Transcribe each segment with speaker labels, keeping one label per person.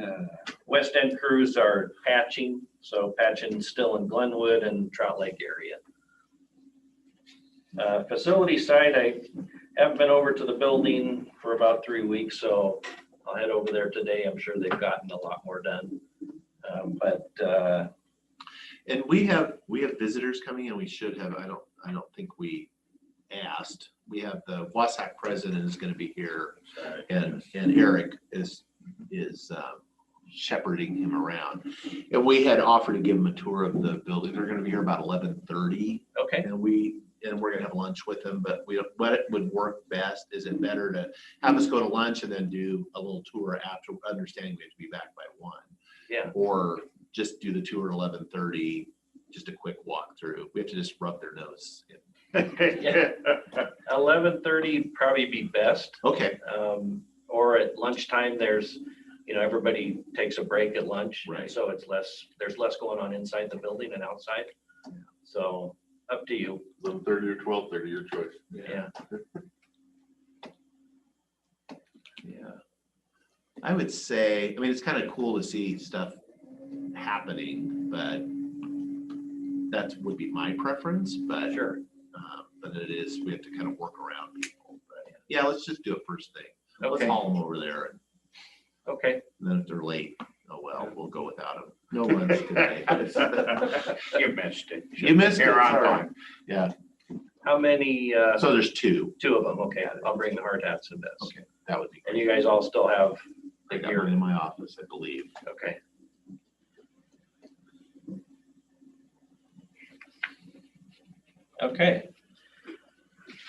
Speaker 1: Uh, West End crews are patching, so patching still in Glenwood and Trout Lake area. Uh, Facility side, I haven't been over to the building for about three weeks, so I'll head over there today. I'm sure they've gotten a lot more done. Uh, But uh,
Speaker 2: And we have, we have visitors coming in. We should have, I don't, I don't think we asked. We have the Wasack president is gonna be here and, and Eric is, is um, shepherding him around. And we had offered to give him a tour of the building. They're gonna be here about eleven thirty.
Speaker 1: okay,
Speaker 2: And we, and we're gonna have lunch with them, but we, what it would work best, is it better to have us go to lunch and then do a little tour after, understanding we have to be back by one?
Speaker 1: Yeah.
Speaker 2: Or just do the tour at eleven thirty, just a quick walkthrough. We have to just rub their nose.
Speaker 1: eleven thirty probably be best.
Speaker 2: Okay,
Speaker 1: Um, Or at lunchtime, there's, you know, everybody takes a break at lunch. and
Speaker 2: Right.
Speaker 1: So it's less, there's less going on inside the building and outside. So up to you.
Speaker 3: Eleven thirty or twelve thirty, your choice.
Speaker 1: Yeah.
Speaker 2: yeah. I would say, I mean, it's kind of cool to see stuff happening, but that would be my preference, but
Speaker 1: Sure.
Speaker 2: Um, But it is, we have to kind of work around people. But Yeah, let's just do it first thing. Let's
Speaker 1: Okay,
Speaker 2: haul them over there and
Speaker 1: okay.
Speaker 2: then if they're late, oh well, we'll go without them. No lunch today.
Speaker 4: You missed it.
Speaker 2: You missed it.
Speaker 4: Here on
Speaker 2: sorry.
Speaker 4: time.
Speaker 1: How many, uh,
Speaker 2: So there's two.
Speaker 1: two of them? Okay, I'll bring the hard hats and this.
Speaker 2: Okay. That would be
Speaker 1: And
Speaker 2: great.
Speaker 1: you guys all still have
Speaker 2: I
Speaker 1: the
Speaker 2: got one
Speaker 1: gear?
Speaker 2: in my office, I believe.
Speaker 1: Okay. Okay.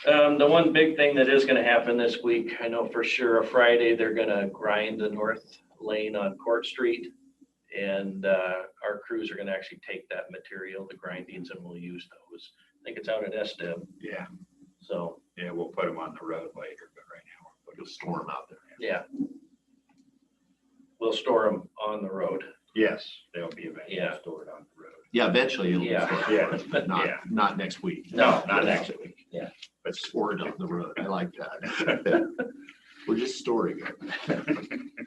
Speaker 1: Um, the one big thing that is gonna happen this week, I know for sure, Friday, they're gonna grind the north lane on Court Street. And, uh, our crews are gonna actually take that material, the grindings, and we'll use those. I think it's out at SDEM,
Speaker 4: Yeah,
Speaker 1: so,
Speaker 4: yeah, we'll put them on the road later, but right now. we're
Speaker 2: You'll
Speaker 4: putting-
Speaker 2: store them out there.
Speaker 1: yeah. We'll store them on the road.
Speaker 4: Yes, they'll be eventually
Speaker 1: Yeah.
Speaker 4: stored on the road.
Speaker 2: Yeah, eventually it'll be
Speaker 1: Yeah.
Speaker 2: stored,
Speaker 4: Yeah.
Speaker 2: first, but not,
Speaker 4: Yeah.
Speaker 2: not next week.
Speaker 1: No,
Speaker 4: not next
Speaker 2: week.
Speaker 1: Yeah.
Speaker 2: But stored on the road. I like that. We're just storing it.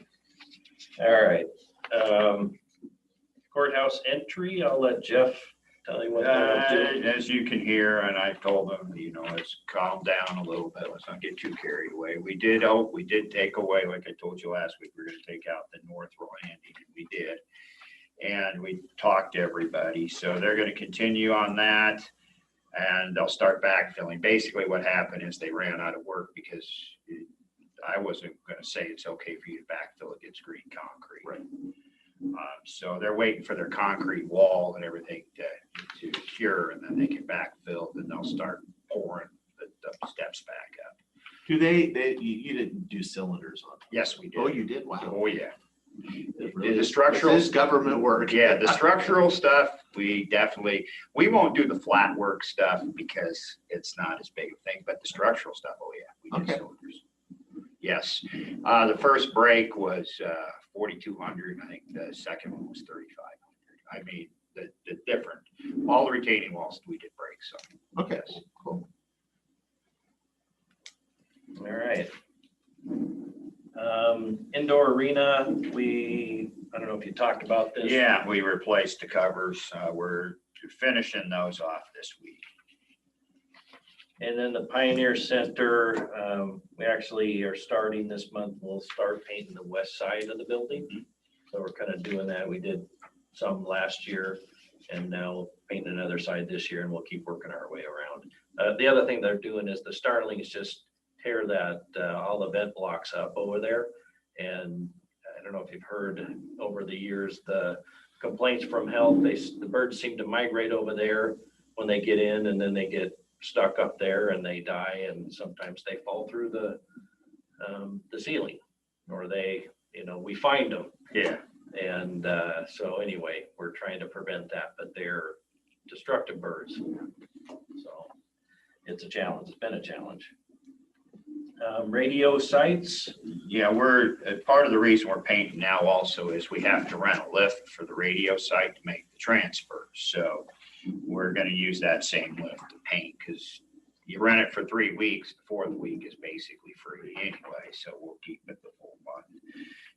Speaker 1: All right. um, Courthouse entry, I'll let Jeff tell you what.
Speaker 4: Uh,
Speaker 1: they'll do.
Speaker 4: As you can hear, and I told them, you know, let's calm down a little bit, let's not get too carried away. We did, oh, we did take away, like I told you last week, we are gonna take out the north landing, and we did. And we talked to everybody, so they're gonna continue on that. And they'll start backfilling. Basically, what happened is they ran out of work because it- I wasn't gonna say it's okay for you to backfill against green concrete.
Speaker 2: Right.
Speaker 4: Um, So they're waiting for their concrete wall and everything to, to cure, and then they can backfill, then they'll start pouring the, the steps back up.
Speaker 2: Do they, they, you, you didn't do cylinders on?
Speaker 4: Yes, we
Speaker 2: Oh,
Speaker 4: did.
Speaker 2: you did? Wow.
Speaker 4: Oh, yeah.
Speaker 2: It
Speaker 4: The-
Speaker 2: really
Speaker 4: the
Speaker 2: is-
Speaker 4: structural-
Speaker 2: This is government work.
Speaker 4: Yeah, the structural stuff, we definitely, we won't do the flat work stuff because it's not as big a thing, but the structural stuff, oh, yeah. we do
Speaker 2: Okay.
Speaker 4: cylinders. Yes, uh, the first break was, uh, forty-two hundred, I think the second one was thirty-five hundred. I mean, the, the different, all the retaining walls, we did breaks on.
Speaker 2: Okay,
Speaker 4: Yes.
Speaker 2: cool.
Speaker 1: All right. Um, Indoor arena, we, I don't know if you talked about this.
Speaker 4: Yeah, we replaced the covers. Uh, we're finishing those off this week.
Speaker 1: And then the Pioneer Center, um, we actually are starting this month, we'll start painting the west side of the building. So we're kind of doing that. We did some last year and now paint another side this year and we'll keep working our way around. Uh, the other thing they're doing is the Starlings just tear that, uh, all the vent blocks up over there. And I don't know if you've heard over the years, the complaints from health, they, s- the birds seem to migrate over there when they get in and then they get stuck up there and they die and sometimes they fall through the, um, the ceiling. Or they, you know, we find them
Speaker 4: Yeah.
Speaker 1: and uh, so anyway, we're trying to prevent that, but they're destructive birds. So it's a challenge. It's been a challenge. Um, Radio sites,
Speaker 4: Yeah, we're, uh, part of the reason we're painting now also is we have to rent a lift for the radio site to make the transfer. So we're gonna use that same lift to paint because you rent it for three weeks, the fourth week is basically free anyway, so we'll keep it the full month.